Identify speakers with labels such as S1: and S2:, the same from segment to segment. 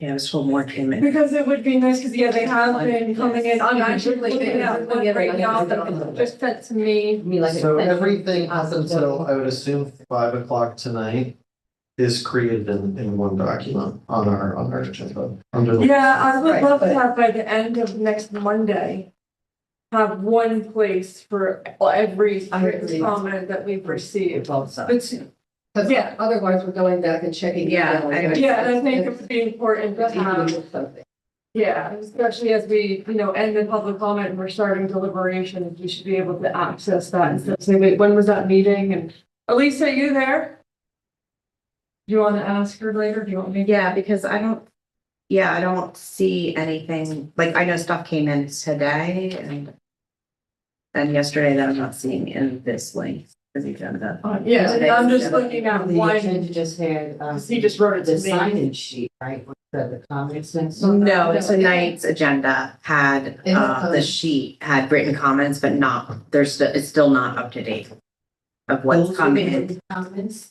S1: Yeah, this one more came in.
S2: Because it would be nice, because yeah, they have been coming in, I'm actually looking at one right now, that just sent to me.
S3: Me like. uh,
S4: So everything up until, I would assume, five o'clock tonight is created in, in one document on our, on our agenda. under the-
S2: Yeah, I would
S1: Right,
S2: love to
S1: but-
S2: have by the end of next Monday. Have one place for every
S3: I agree.
S2: comment that we've received.
S3: Because
S2: Yeah.
S3: otherwise we're going back and checking.
S1: Yeah,
S3: email.
S1: I agree.
S2: Yeah, and I think it would be important to
S3: Just
S2: have.
S3: email something.
S2: Yeah, especially as we, you know, end the public comment and we're starting deliberations, we should be able to access that and say, wait, when was that meeting? And Elisa, are you there? Do you want to ask her later? Do you want me? to?
S5: Yeah, because I don't, yeah, I don't see anything, like, I know stuff came in today and and yesterday that I'm not seeing in this link, this agenda.
S2: Uh, Yeah, and I'm just looking at
S3: The
S2: one,
S3: agenda just had, um.
S2: he just wrote it
S3: The
S2: to me.
S3: sign-in sheet, right, with the, the comments and so.
S5: No, tonight's agenda had, uh, the sheet had written comments, but not, there's, st- it's still not up to date of what's come in.
S3: Comments, I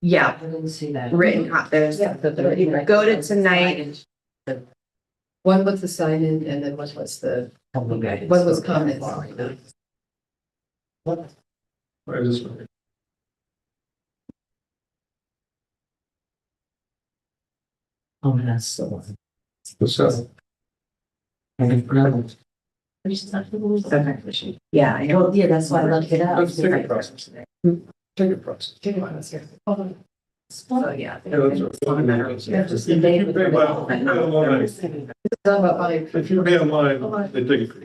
S5: Yeah,
S3: didn't see that.
S5: written, co- there's,
S3: Yeah, the- the-
S5: go to tonight,
S6: One was the sign in and then one was the, What was comments?
S4: I just-
S3: Oh, that's the one.
S5: Okay. yeah, I know.
S3: Well, yeah, that's why I looked it up.
S4: Let's take a process. Take a process.
S6: Oh.
S5: So, yeah.
S4: Yeah, that's right.
S5: It's not a matter of-
S4: Yeah,
S3: just invade with the-
S4: Well, I don't wanna- If you pay online, they take it.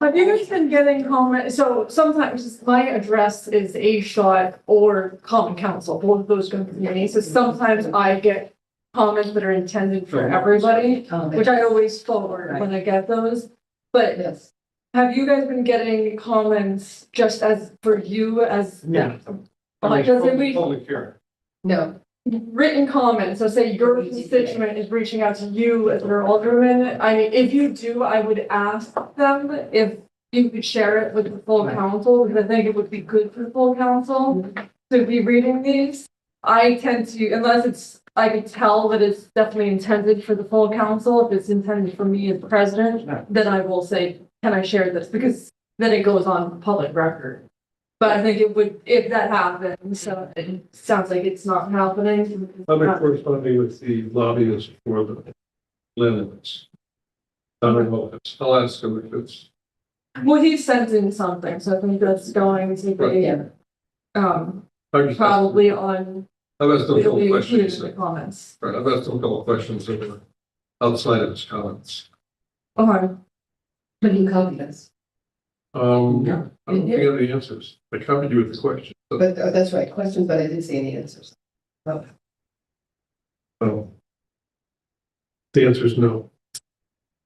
S2: Have you guys been getting comment, so sometimes my address is A shot or common council, both of those go through me, so sometimes I get comments that are intended for everybody,
S3: um,
S2: which I always forward when I get those. But
S6: yes.
S2: have you guys been getting comments just as for you as
S4: Yeah.
S2: Like, doesn't we-
S4: Public hearing.
S6: No,
S2: written comments, so say your constituent is reaching out to you as their alderman, I mean, if you do, I would ask them if you could share it with the full council, because I think it would be good for the full council to be reading these. I tend to, unless it's, I could tell that it's definitely intended for the full council, if it's intended for me as president, then I will say, can I share this, because then it goes on public record. But I think it would, if that happened, so it sounds like it's not happening.
S7: I've been corresponding with the lobbyists for the Linens. I don't know, if it's- I'll ask them if it's,
S2: Well, he sent in something, so I think that's going to
S7: Right,
S2: be, um,
S7: I've just asked-
S2: probably on,
S7: I've asked them a
S2: it'll
S7: couple
S2: be included
S7: questions,
S2: in the
S7: that-
S2: comments.
S7: right, I've asked them a couple questions that were outside of his comments.
S2: Okay,
S6: but you copied us.
S7: Um, I don't think I have the answers, I covered you with the question, but,
S6: But oh, that's right, questions, but I didn't see any answers.
S7: um, the answer is no.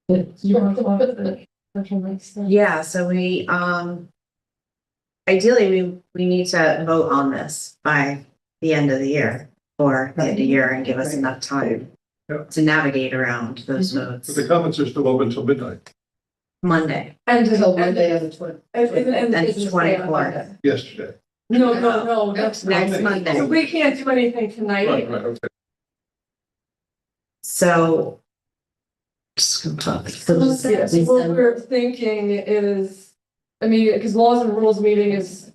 S2: you want to go on to the question next then?
S5: Yeah, so we, um, ideally, we, we need to vote on this by the end of the year or the end of the year and give us enough time
S7: Yep.
S5: to navigate around those
S7: But
S5: votes
S7: the comments are still open until midnight,
S5: Monday.
S2: And,
S6: Until
S2: and, and,
S6: Monday on the twenty.
S5: And
S2: and. it's-
S5: 24th.
S7: yesterday.
S2: No, no, no, that's,
S5: Next
S2: so
S5: Monday.
S2: we can't do anything tonight.
S7: Right, right, okay.
S5: So
S3: So just-
S2: Yes,
S3: we
S2: what
S3: send-
S2: we're thinking is, I mean, because laws and rules meeting is.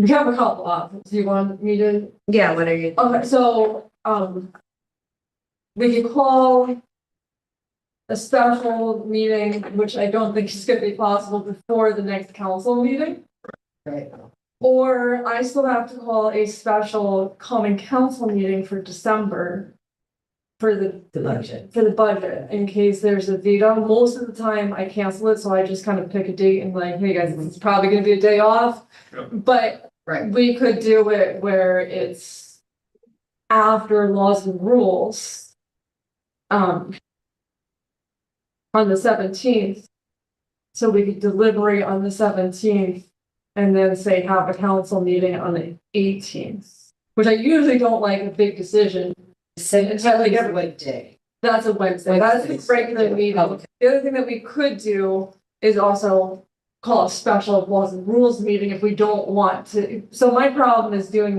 S2: We have a couple options. Do you want me to?
S5: yeah, what are you?
S2: Okay, so, um. We could call. A special meeting, which I don't think is gonna be possible before the next council meeting.
S6: Right.
S2: Or I still have to call a special common council meeting for December. For the,
S3: The budget.
S2: for the budget, in case there's a veto, most of the time I cancel it, so I just kind of pick a date and like, hey guys, it's probably gonna be a day off.
S7: Yeah.
S2: But
S6: Right,
S2: we could do it where it's after laws and rules. Um. On the seventeenth. So we could deliberate on the seventeenth and then say have a council meeting on the eighteenth. Which I usually don't like a big decision.
S3: Seventeenth
S2: every-
S3: is what day?
S2: That's a Wednesday. That's the
S3: Wednesdays.
S2: regular
S3: Oh,
S2: meeting.
S3: okay.
S2: The other thing that we could do is also call a special laws and rules meeting if we don't want to. So my problem is doing